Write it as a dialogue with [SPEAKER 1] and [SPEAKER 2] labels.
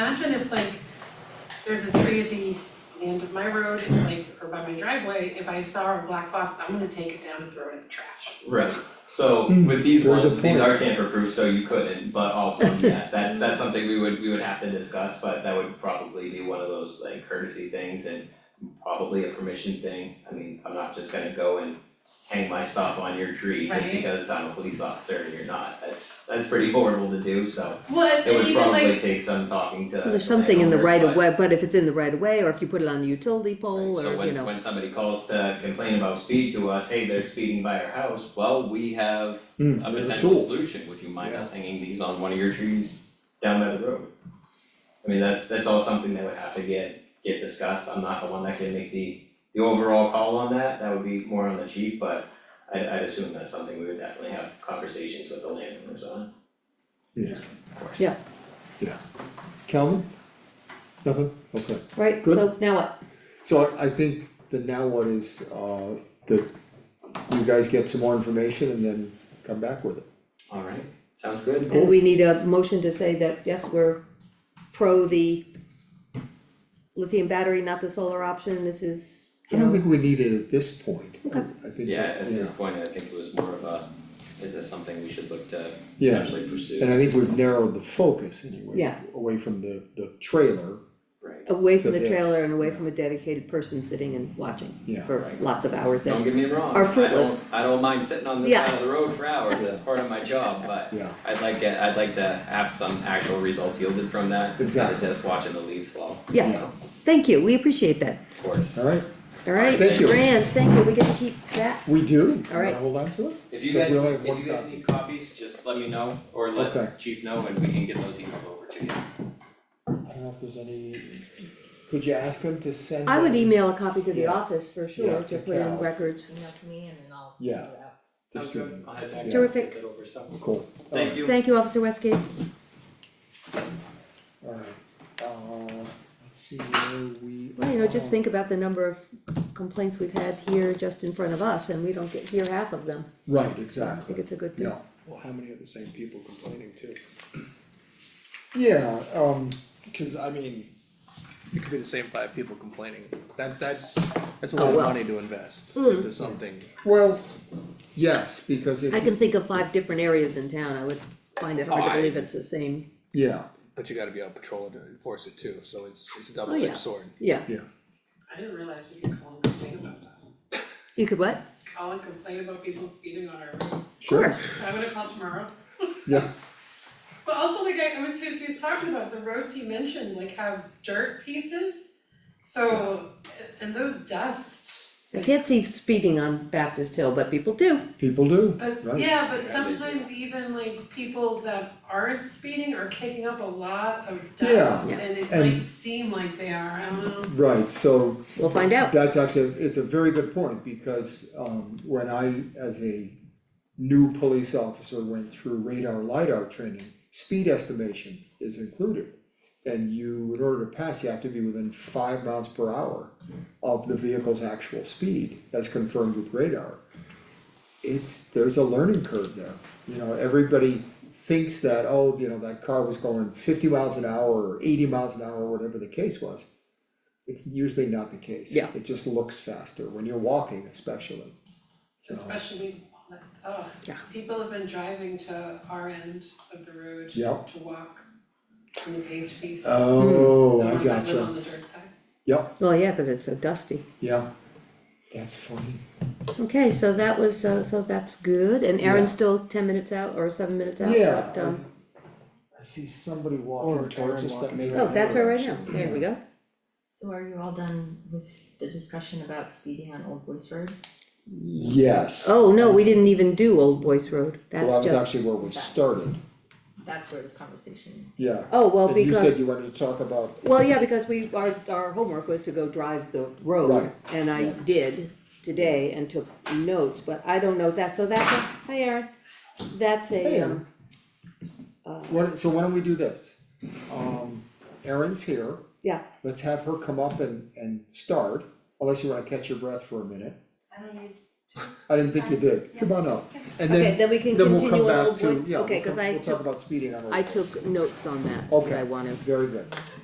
[SPEAKER 1] Imagine if like, there's a tree at the end of my road, like, or by my driveway, if I saw a black box, I'm gonna take it down and throw it in the trash.
[SPEAKER 2] Right, so
[SPEAKER 3] Hmm,
[SPEAKER 2] with these
[SPEAKER 3] very good
[SPEAKER 2] ones, these
[SPEAKER 3] point.
[SPEAKER 2] are tamper proof, so you couldn't, but also, yes, that's that's something we would, we would have to discuss, but that would probably be one of those like courtesy things and probably a permission thing, I mean, I'm not just gonna go and hang my stuff on your tree just
[SPEAKER 1] Right.
[SPEAKER 2] because I'm a police officer and you're not, that's that's pretty horrible to do, so
[SPEAKER 1] Well,
[SPEAKER 2] it would probably take some talking to
[SPEAKER 4] There's something in the right of
[SPEAKER 2] landowners,
[SPEAKER 4] way, but if it's in the right of way, or if you put it on the utility
[SPEAKER 2] but-
[SPEAKER 4] pole,
[SPEAKER 2] so
[SPEAKER 4] or, you
[SPEAKER 2] when
[SPEAKER 4] know,
[SPEAKER 2] when somebody calls to complain about speed to us, hey, they're speeding by our house, well, we have
[SPEAKER 3] Hmm,
[SPEAKER 2] a
[SPEAKER 3] there's a
[SPEAKER 2] potential
[SPEAKER 3] tool.
[SPEAKER 2] solution, would you mind us hanging these on one of your trees down by the road? I mean, that's that's all something that would have to get get discussed, I'm not the one that can make the the overall call on that, that would be more on the chief, but I I'd assume that's something we would definitely have conversations with the landowners on.
[SPEAKER 3] Yeah.
[SPEAKER 2] Of course.
[SPEAKER 4] Yeah.
[SPEAKER 3] Calvin? Nothing? Okay.
[SPEAKER 4] right,
[SPEAKER 3] Good.
[SPEAKER 4] so now what?
[SPEAKER 3] So I- I think the now one is, uh, that you guys get some more information and then come back with it.
[SPEAKER 2] Alright, sounds good.
[SPEAKER 4] And we need a motion to say that, yes, we're pro the lithium battery, not the solar option, this is,
[SPEAKER 3] I
[SPEAKER 4] you
[SPEAKER 3] don't
[SPEAKER 4] know,
[SPEAKER 3] think we need it at this point. I-
[SPEAKER 4] Okay.
[SPEAKER 3] I think,
[SPEAKER 2] Yeah, at
[SPEAKER 3] that-
[SPEAKER 2] this
[SPEAKER 3] yeah,
[SPEAKER 2] point, I think it was more of a, is this something we should look to
[SPEAKER 3] Yeah.
[SPEAKER 2] actually pursue?
[SPEAKER 3] and I think we've narrowed the focus anyway.
[SPEAKER 4] Yeah.
[SPEAKER 3] Away from the, the trailer,
[SPEAKER 2] Right,
[SPEAKER 4] away from
[SPEAKER 3] So
[SPEAKER 4] the
[SPEAKER 3] this,
[SPEAKER 4] trailer and away from a dedicated person sitting and watching
[SPEAKER 3] Yeah.
[SPEAKER 4] for
[SPEAKER 2] Right.
[SPEAKER 4] lots of hours there.
[SPEAKER 2] don't get me wrong, I
[SPEAKER 4] Are fruitless.
[SPEAKER 2] don't, I don't mind sitting on this
[SPEAKER 4] Yeah.
[SPEAKER 2] side of the road for hours, that's part of my job, but
[SPEAKER 3] yeah,
[SPEAKER 2] I'd like it, I'd like to have some actual results yielded from that, instead of
[SPEAKER 3] Exactly.
[SPEAKER 2] just watching the leaves fall, so,
[SPEAKER 4] Yeah.
[SPEAKER 2] of
[SPEAKER 4] Thank you, we appreciate that,
[SPEAKER 2] course.
[SPEAKER 3] alright,
[SPEAKER 4] alright,
[SPEAKER 3] Thank you.
[SPEAKER 4] Rand, thank you, we get to keep that,
[SPEAKER 3] we do,
[SPEAKER 4] All right.
[SPEAKER 3] Wanna hold on to it,
[SPEAKER 2] If you
[SPEAKER 3] Because
[SPEAKER 2] guys,
[SPEAKER 3] we only have
[SPEAKER 2] if
[SPEAKER 3] one
[SPEAKER 2] you guys
[SPEAKER 3] copy.
[SPEAKER 2] need copies, just let me know, or
[SPEAKER 3] Okay.
[SPEAKER 2] let chief know, and we can get those emailed over to you.
[SPEAKER 3] I don't know if there's any, could you ask them to send?
[SPEAKER 4] I would
[SPEAKER 3] them-
[SPEAKER 4] email a copy to the
[SPEAKER 3] Yeah.
[SPEAKER 4] office for sure,
[SPEAKER 3] Yeah,
[SPEAKER 4] to
[SPEAKER 3] to
[SPEAKER 4] put in
[SPEAKER 3] Cal.
[SPEAKER 4] records.
[SPEAKER 5] email to me and then I'll
[SPEAKER 3] Yeah.
[SPEAKER 5] figure it out.
[SPEAKER 2] Sounds good,
[SPEAKER 3] Distribute.
[SPEAKER 2] I'll head back
[SPEAKER 3] Yeah.
[SPEAKER 2] down and
[SPEAKER 4] Terrific.
[SPEAKER 2] get over some.
[SPEAKER 3] Cool,
[SPEAKER 2] Thank you.
[SPEAKER 4] Thank you, Officer Westgate.
[SPEAKER 3] alright, uh, let's see where we.
[SPEAKER 4] Well, you know, just
[SPEAKER 3] are.
[SPEAKER 4] think about the number of complaints we've had here just in front of us, and we don't get, hear half of them.
[SPEAKER 3] Right,
[SPEAKER 4] I
[SPEAKER 3] exactly.
[SPEAKER 4] think it's a good thing.
[SPEAKER 3] Yeah,
[SPEAKER 6] Well, how many are the same people complaining too?
[SPEAKER 3] yeah, um,
[SPEAKER 6] Cause I mean, it could be the same five people complaining, that, that's, that's a
[SPEAKER 4] Oh,
[SPEAKER 6] lot of
[SPEAKER 4] well. Mm.
[SPEAKER 6] money to invest into something.
[SPEAKER 3] well, yes, because
[SPEAKER 4] I
[SPEAKER 3] it,
[SPEAKER 4] can think of five different areas in town, I would find it hard to believe it's the same,
[SPEAKER 3] yeah,
[SPEAKER 6] But you gotta be on patrol to enforce it too, so it's, it's a double
[SPEAKER 4] Oh, yeah.
[SPEAKER 6] edged sword.
[SPEAKER 4] yeah.
[SPEAKER 3] yeah,
[SPEAKER 1] I didn't realize we could call and complain about that.
[SPEAKER 4] You could what?
[SPEAKER 1] Call and complain about people speeding on our road,
[SPEAKER 3] sure,
[SPEAKER 4] course.
[SPEAKER 1] so I'm gonna call tomorrow.
[SPEAKER 3] yeah,
[SPEAKER 1] But also the guy, I was, he was, he was talking about the roads he mentioned, like have dirt pieces. So, and those dust,
[SPEAKER 4] I can't see speeding on Baptist Hill, but people do.
[SPEAKER 3] people do,
[SPEAKER 1] but yeah,
[SPEAKER 3] Right.
[SPEAKER 1] but
[SPEAKER 2] Yeah, they do.
[SPEAKER 1] sometimes even like people that aren't speeding are kicking up a lot of
[SPEAKER 3] Yeah.
[SPEAKER 1] dust
[SPEAKER 4] Yeah.
[SPEAKER 1] and it
[SPEAKER 3] And-
[SPEAKER 1] might seem like they are, I don't know.
[SPEAKER 3] right, so
[SPEAKER 4] We'll find out.
[SPEAKER 3] That's actually, it's a very good point, because um when I, as a new police officer, went through radar lidar training, speed estimation is included. And you, in order to pass, you have to be within five miles per hour of the vehicle's actual speed, as confirmed with radar. It's, there's a learning curve there, you know, everybody thinks that, oh, you know, that car was going fifty miles an hour or eighty miles an hour, whatever the case was. It's usually not the case.
[SPEAKER 4] Yeah.
[SPEAKER 3] It just looks faster when you're walking especially, so.
[SPEAKER 1] Especially, uh,
[SPEAKER 4] Yeah.
[SPEAKER 1] people have been driving to our end of the road
[SPEAKER 3] Yep.
[SPEAKER 1] to walk on the paved piece.
[SPEAKER 3] Oh,
[SPEAKER 1] The
[SPEAKER 3] I
[SPEAKER 1] ones that live
[SPEAKER 3] gotcha,
[SPEAKER 1] on the dirt side.
[SPEAKER 3] yep,
[SPEAKER 4] Well, yeah, cause it's so dusty.
[SPEAKER 3] yeah, that's funny,
[SPEAKER 4] Okay, so that was, uh, so that's good, and Aaron's still ten minutes out or seven minutes out,
[SPEAKER 3] yeah.
[SPEAKER 4] but, um,
[SPEAKER 3] I see somebody walking
[SPEAKER 6] Or
[SPEAKER 3] towards
[SPEAKER 6] Aaron
[SPEAKER 3] us that may.
[SPEAKER 6] walking.
[SPEAKER 3] have
[SPEAKER 4] oh, that's her
[SPEAKER 3] heard
[SPEAKER 4] right now,
[SPEAKER 3] actually.
[SPEAKER 4] there we go.
[SPEAKER 5] So are you all done with the discussion about speeding on Old Boys Road?
[SPEAKER 3] Yes, well,
[SPEAKER 4] Oh, no, we didn't even do Old Boys Road,
[SPEAKER 3] that
[SPEAKER 4] that's
[SPEAKER 3] was
[SPEAKER 4] just,
[SPEAKER 3] actually where we started,
[SPEAKER 5] That's where this conversation,
[SPEAKER 3] yeah.
[SPEAKER 4] oh, well,
[SPEAKER 3] And you
[SPEAKER 4] because.
[SPEAKER 3] said you wanted to talk about,
[SPEAKER 4] Well, yeah, because we, our, our homework was to go drive the road,
[SPEAKER 3] Right.
[SPEAKER 4] and I did today and took notes, but I don't know that, so that's a, hi Aaron. That's
[SPEAKER 3] Hey,
[SPEAKER 4] a, um, uh,
[SPEAKER 3] Aaron. what, so why don't we do this? Um, Erin's here,
[SPEAKER 4] yeah,
[SPEAKER 3] let's have her come up and, and start, unless you wanna catch your breath for a minute.
[SPEAKER 1] I don't need
[SPEAKER 3] I didn't think you did, come on up, and
[SPEAKER 4] Okay,
[SPEAKER 3] then,
[SPEAKER 4] then we can
[SPEAKER 3] then we'll
[SPEAKER 4] continue
[SPEAKER 3] come
[SPEAKER 4] on
[SPEAKER 3] back
[SPEAKER 4] Old
[SPEAKER 3] to,
[SPEAKER 4] Boys,
[SPEAKER 3] yeah, we'll
[SPEAKER 4] okay, cause
[SPEAKER 3] come-
[SPEAKER 4] I
[SPEAKER 3] we'll talk
[SPEAKER 4] took,
[SPEAKER 3] about speeding on Old Boys.
[SPEAKER 4] I took notes on that, that
[SPEAKER 3] Okay.
[SPEAKER 4] I wanna
[SPEAKER 3] Very good.